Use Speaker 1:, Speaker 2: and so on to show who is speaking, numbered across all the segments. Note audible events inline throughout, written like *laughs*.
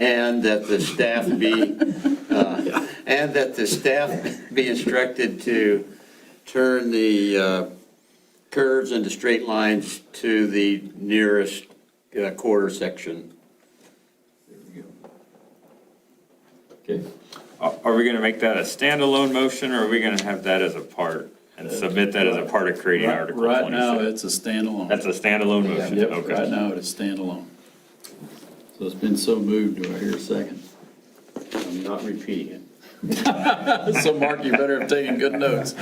Speaker 1: and that the staff be, uh, and that the staff be instructed to turn the uh, curves into straight lines to the nearest uh, quarter section.
Speaker 2: Okay.
Speaker 3: Are are we gonna make that a standalone motion, or are we gonna have that as a part? And submit that as a part of creating
Speaker 4: Right
Speaker 3: Article
Speaker 4: right now, it's
Speaker 3: 26?
Speaker 4: a standalone.
Speaker 3: That's a standalone motion,
Speaker 4: Yep, right
Speaker 3: okay.
Speaker 4: now, it is standalone. So it's been so moved, do I hear a second?
Speaker 2: I'm not repeating it.
Speaker 4: *laughs* So Mark, you better have taken good notes.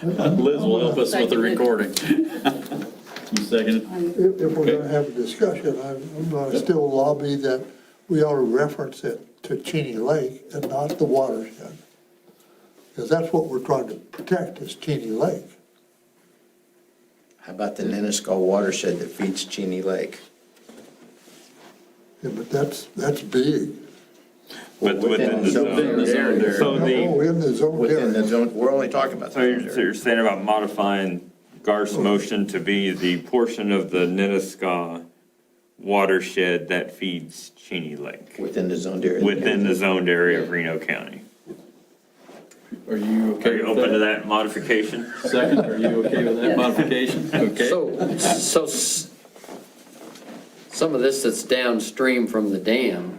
Speaker 4: Liz will help us with the recording. You second it?
Speaker 5: If, if we're gonna have a discussion, I'm, I'm gonna still lobby that we ought to reference it to Cheney Lake and not the watershed. Because that's what we're trying to protect is Cheney Lake.
Speaker 6: How about the Nenasko watershed that feeds Cheney Lake?
Speaker 5: Yeah, but that's, that's big.
Speaker 3: But within the
Speaker 6: Within
Speaker 3: zone.
Speaker 6: the zone there.
Speaker 3: So
Speaker 5: Oh,
Speaker 3: the,
Speaker 5: in the zone
Speaker 6: Within the
Speaker 5: there.
Speaker 6: zone, we're only talking about.
Speaker 3: so you're, so you're saying about modifying Garth's motion to be the portion of the Nenasko watershed that feeds Cheney Lake
Speaker 6: Within the zone area.
Speaker 3: within the zoned area of Reno County?
Speaker 4: Are you
Speaker 3: Are
Speaker 4: okay
Speaker 3: you
Speaker 4: with
Speaker 3: open to
Speaker 4: that?
Speaker 3: that modification?
Speaker 4: Second, are you okay with that
Speaker 3: *laughs*
Speaker 4: modification? Okay.
Speaker 7: So, so s- some of this that's downstream from the dam,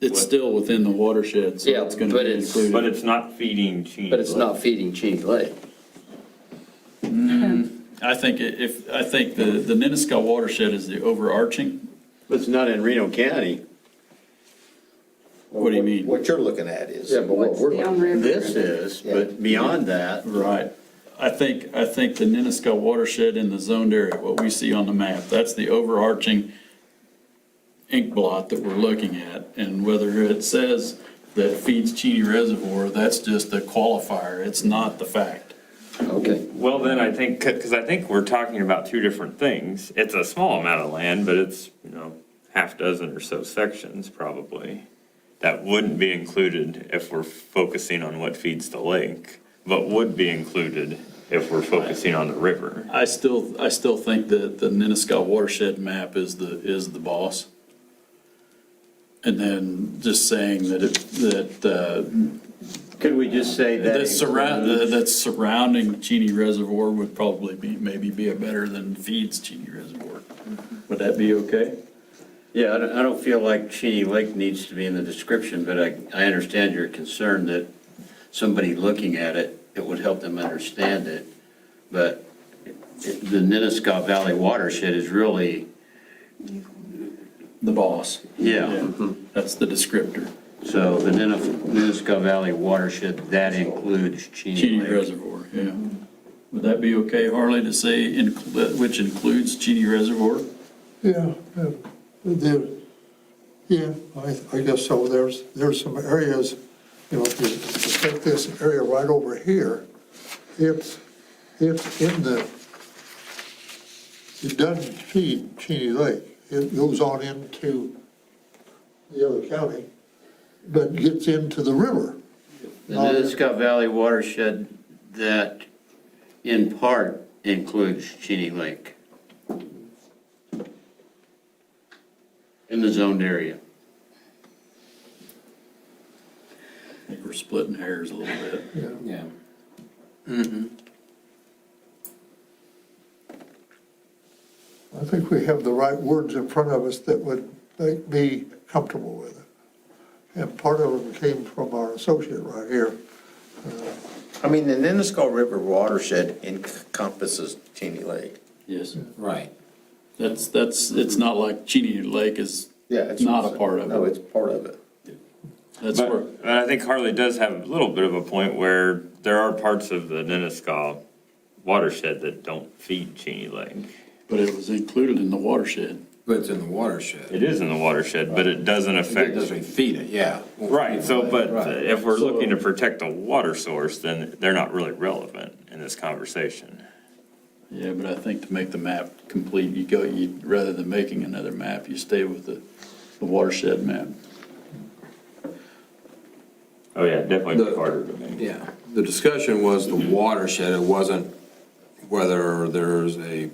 Speaker 4: It's still within the watershed, so
Speaker 7: Yeah,
Speaker 4: it's going to
Speaker 7: but
Speaker 4: be
Speaker 7: it's-
Speaker 4: included.
Speaker 3: But it's not feeding Cheney Lake.
Speaker 7: but it's not feeding Cheney Lake.
Speaker 4: I think i- if, I think the, the Nenasko watershed is the overarching.
Speaker 2: It's not in Reno County.
Speaker 4: What do you mean?
Speaker 6: What you're looking at is.
Speaker 7: Yeah, but what
Speaker 8: What's
Speaker 7: we're
Speaker 8: down river?
Speaker 2: This is, but beyond that,
Speaker 4: Right. I think, I think the Nenasko watershed in the zoned area, what we see on the map, that's the overarching ink blot that we're looking at. And whether it says that feeds Cheney Reservoir, that's just a qualifier. It's not the fact.
Speaker 7: Okay.
Speaker 3: Well, then I think, because I think we're talking about two different things. It's a small amount of land, but it's, you know, half dozen or so sections probably. That wouldn't be included if we're focusing on what feeds the lake, but would be included if we're focusing on the river.
Speaker 4: I still, I still think that the Nenasko watershed map is the, is the boss. And then just saying that it, that, uh,
Speaker 2: could we just say that?
Speaker 4: That surround, the- that surrounding Cheney Reservoir would probably be, maybe be a better than feeds Cheney Reservoir. Would that be okay?
Speaker 2: Yeah, I don't, I don't feel like Cheney Lake needs to be in the description, but I, I understand your concern that somebody looking at it, it would help them understand it. But it- the Nenasko Valley watershed is really,
Speaker 4: The boss.
Speaker 2: yeah.
Speaker 4: That's the descriptor,
Speaker 2: So the Nenef- Nenasko Valley watershed, that includes Cheney
Speaker 4: Cheney
Speaker 2: Lake.
Speaker 4: Reservoir, yeah. Would that be okay, Harley, to say, inclu- which includes Cheney Reservoir?
Speaker 5: Yeah, yeah, there, yeah, I, I guess so. There's, there's some areas, you know, if you take this area right over here, it's, it's in the, it doesn't feed Cheney Lake. It goes on into the other county, but gets into the river.
Speaker 2: The Nenasko Valley watershed, that in part includes Cheney Lake. In the zoned area.
Speaker 4: I think we're splitting hairs a little bit.
Speaker 7: Yeah.
Speaker 5: I think we have the right words in front of us that would make me comfortable with it. And part of them came from our associate right here.
Speaker 6: I mean, the Nenasko River watershed encompasses Cheney Lake.
Speaker 4: Yes.
Speaker 6: Right.
Speaker 4: That's, that's, it's not like Cheney Lake is
Speaker 6: Yeah. it's-
Speaker 4: not a part of
Speaker 6: No,
Speaker 4: it.
Speaker 6: it's part of it.
Speaker 4: That's where,
Speaker 3: But, but I think Harley does have a little bit of a point where there are parts of the Nenasko watershed that don't feed Cheney Lake.
Speaker 4: but it was included in the watershed.
Speaker 9: But it's in the watershed.
Speaker 3: It is in the watershed, but it doesn't affect.
Speaker 9: It doesn't feed it, yeah.
Speaker 3: Right, so, but uh,
Speaker 9: Right.
Speaker 3: if we're looking to protect a water source, then they're not really relevant in this conversation.
Speaker 4: Yeah, but I think to make the map complete, you go, you, rather than making another map, you stay with the, the watershed map.
Speaker 3: Oh, yeah, definitely
Speaker 9: The-
Speaker 3: harder to make.
Speaker 9: Yeah. The discussion was the watershed, it wasn't whether there's a